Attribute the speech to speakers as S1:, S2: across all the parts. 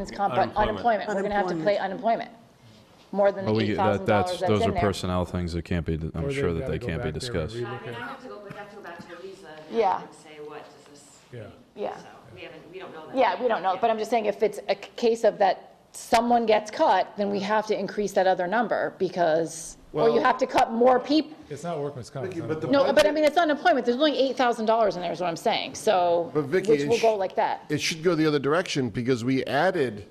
S1: It's comp- but unemployment,
S2: Unemployment.
S1: we're gonna have to play unemployment, more than the
S3: But we,
S1: eight thousand
S3: that, that's,
S1: dollars that's
S3: those are
S1: in there.
S3: personnel things that can't be, I'm
S4: Or
S3: sure
S4: they've
S3: that they
S4: gotta go
S3: can't be
S4: back there and
S3: discussed.
S4: relook
S5: I
S4: at
S5: mean, I
S4: it.
S5: have to go, but I have to go back to Louisa
S1: Yeah.
S5: now and say, what does this?
S4: Yeah.
S1: Yeah.
S5: So, we haven't, we don't know that.
S1: Yeah, we don't know, but I'm just saying if it's a c- case of that someone gets cut, then we have to increase that other number because, or you
S4: Well-
S1: have to cut more people.
S4: It's not workman's comp. it's
S2: But
S4: unemployment.
S2: the
S1: No, but I
S2: budget-
S1: mean, it's unemployment, there's only eight thousand dollars in there is what I'm saying, so,
S2: But
S1: which
S2: Vicky, it
S1: will
S2: sh-
S1: go like that.
S2: It should go the other direction because we added,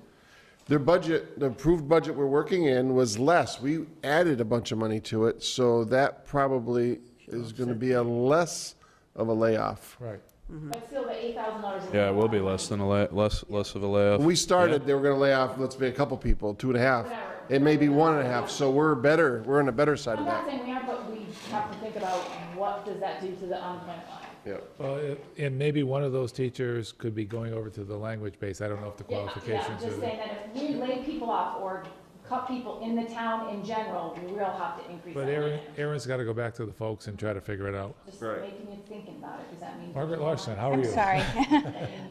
S2: their budget, the approved budget we're working in was less. We added a bunch of money to it, so that probably is going to be a less of a layoff.
S4: Right.
S1: But still, the eight thousand dollars is.
S3: Yeah, it will be less than a lay, less, less of a
S2: When
S3: layoff.
S2: we started, they were going to lay off, let's be a couple people, two and a half. It may be one and a half, so we're better, we're on the better side of
S1: I'm not
S2: that.
S1: saying we are, but we have to think about what does that do to the unemployment line?
S2: Yep.
S4: Well, it- and maybe one of those teachers could be going over to the language base. I don't know if the
S1: Yeah,
S4: qualifications
S1: Yeah,
S4: are
S1: just
S4: there.
S1: saying that if we lay people off or cut people in the town in general, we will have to increase
S4: But
S1: that.
S4: Aaron,
S1: line.
S4: Aaron's got to go back to the folks and try to figure it out.
S1: Just making you thinking about it, does that mean?
S4: Margaret Larson, how are
S6: I'm
S4: you?
S6: sorry.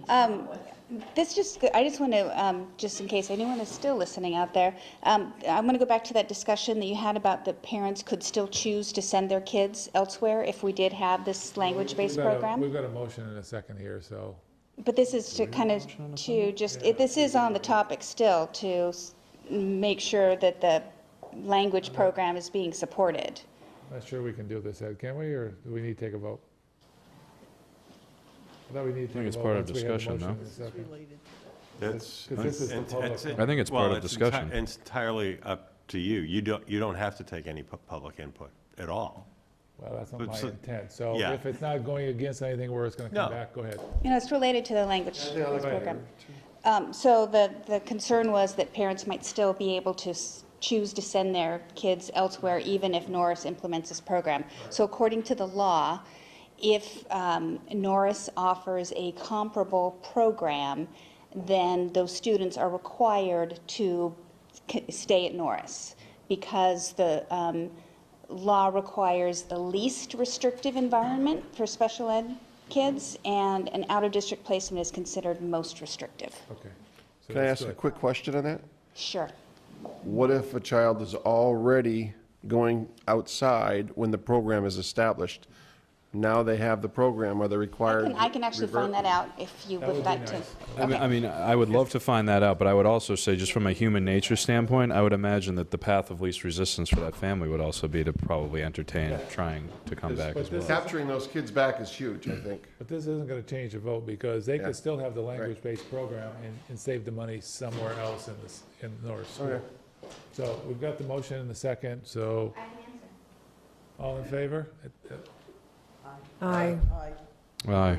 S6: Um, This just, I just want to, just in case anyone is still listening out there, um, I want to go back to that discussion that you had about the parents could still choose to send their kids elsewhere if we did have this language-based
S4: We've got a-
S6: program.
S4: We've got a motion in a second here, so.
S6: But this is to kind of, to just, it- this is on the topic still, to s- make sure that the language program is being supported.
S4: Not sure we can do this, Ed, can we, or do we need to take a vote? I thought we need to take a vote.
S3: think it's part of
S4: once we have a
S3: discussion,
S4: motion
S3: no?
S4: in a second.
S7: That's.
S4: 'Cause this is the
S7: it's-
S4: public
S7: it's-
S4: input.
S3: I think it's part of
S7: well, enti-
S3: discussion.
S7: It's entirely up to you. You don't, you don't have to take any pu- public input at all.
S4: Well, that's not
S7: But
S4: my
S7: so-
S4: intent, so
S7: yeah.
S4: if it's not going against anything where it's going to come
S7: No.
S4: back, go ahead.
S6: You know, it's related to the language arts program. Um, So the, the concern was that parents might still be able to s- choose to send their kids elsewhere even if Norris implements this program. So according to the law, if um, Norris offers a comparable program, then those students are required to c- stay at Norris because the um, law requires the least restrictive environment for special ed kids, and an out-of-district placement is considered most restrictive.
S4: Okay. So
S2: Can I
S4: that's
S2: ask a
S4: good.
S2: quick question on that?
S6: Sure.
S2: What if a child is already going outside when the program is established? Now they have the program, are they
S6: I
S2: required?
S6: can, I can actually find that out if you
S4: That would
S6: would
S4: be
S6: like to.
S4: nice.
S3: I mean, I mean, I would love to find that out, but I would also say, just from a human nature standpoint, I would imagine that the path of least resistance for that family would also be to probably entertain trying to come back
S4: But
S3: as well.
S4: this-
S2: Capturing those kids back is huge, I think.
S4: But this isn't going to change the vote because they could still have the language-based program and, and save the money somewhere else in this, in Norris School. So we've got the motion in the second, so. All in favor?
S8: Aye.
S3: Aye,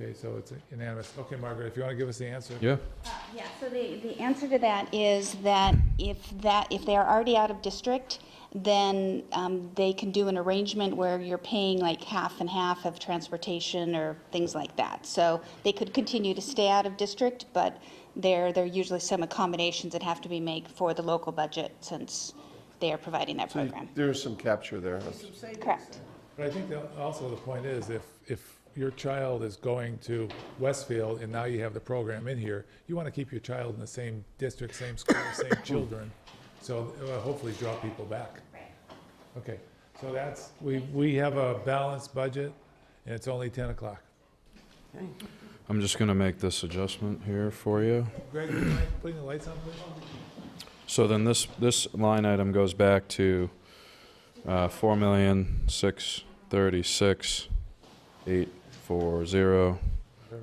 S4: Okay, so it's unanimous. Okay, Margaret, if you want to give us the answer.
S3: yeah,
S6: Yeah, so the, the answer to that is that if that, if they are already out of district, then um, they can do an arrangement where you're paying like half and half of transportation or things like that. So they could continue to stay out of district, but there, there are usually some accommodations that have to be made for the local budget since they are providing that program.
S2: There's some capture there.
S6: Correct.
S4: But I think that also the point is, if, if your child is going to Westfield and now you have the program in here, you want to keep your child in the same district, same school, same children, so it will hopefully draw people back. Okay, so that's, we, we have a balanced budget, and it's only 10 o'clock.
S3: I'm just gonna make this adjustment here for you.
S4: Greg, would you mind putting the lights on, please?
S3: So then this, this line item goes back to uh, four million, six thirty-six, eight four zero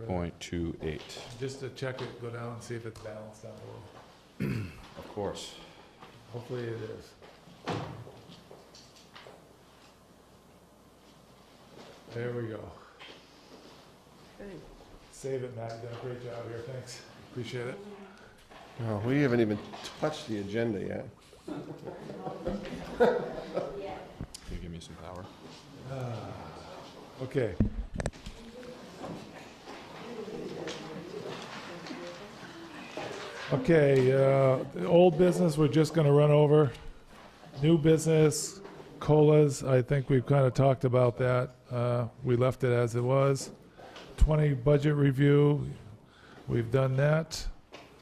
S3: point two eight.
S4: Just to check it, go down and see if it's balanced out a little.
S3: Of course.
S4: Hopefully it is. There we go. Save it, Matt, you done a great job here, thanks, appreciate it.
S2: Oh, We haven't even touched the agenda yet.
S3: Can you give me some power?
S4: Okay. Okay, uh, the old business, we're just gonna run over. New business, colas, I think we've kind of talked about that. Uh, We left it as it was. 20 budget review, we've done that.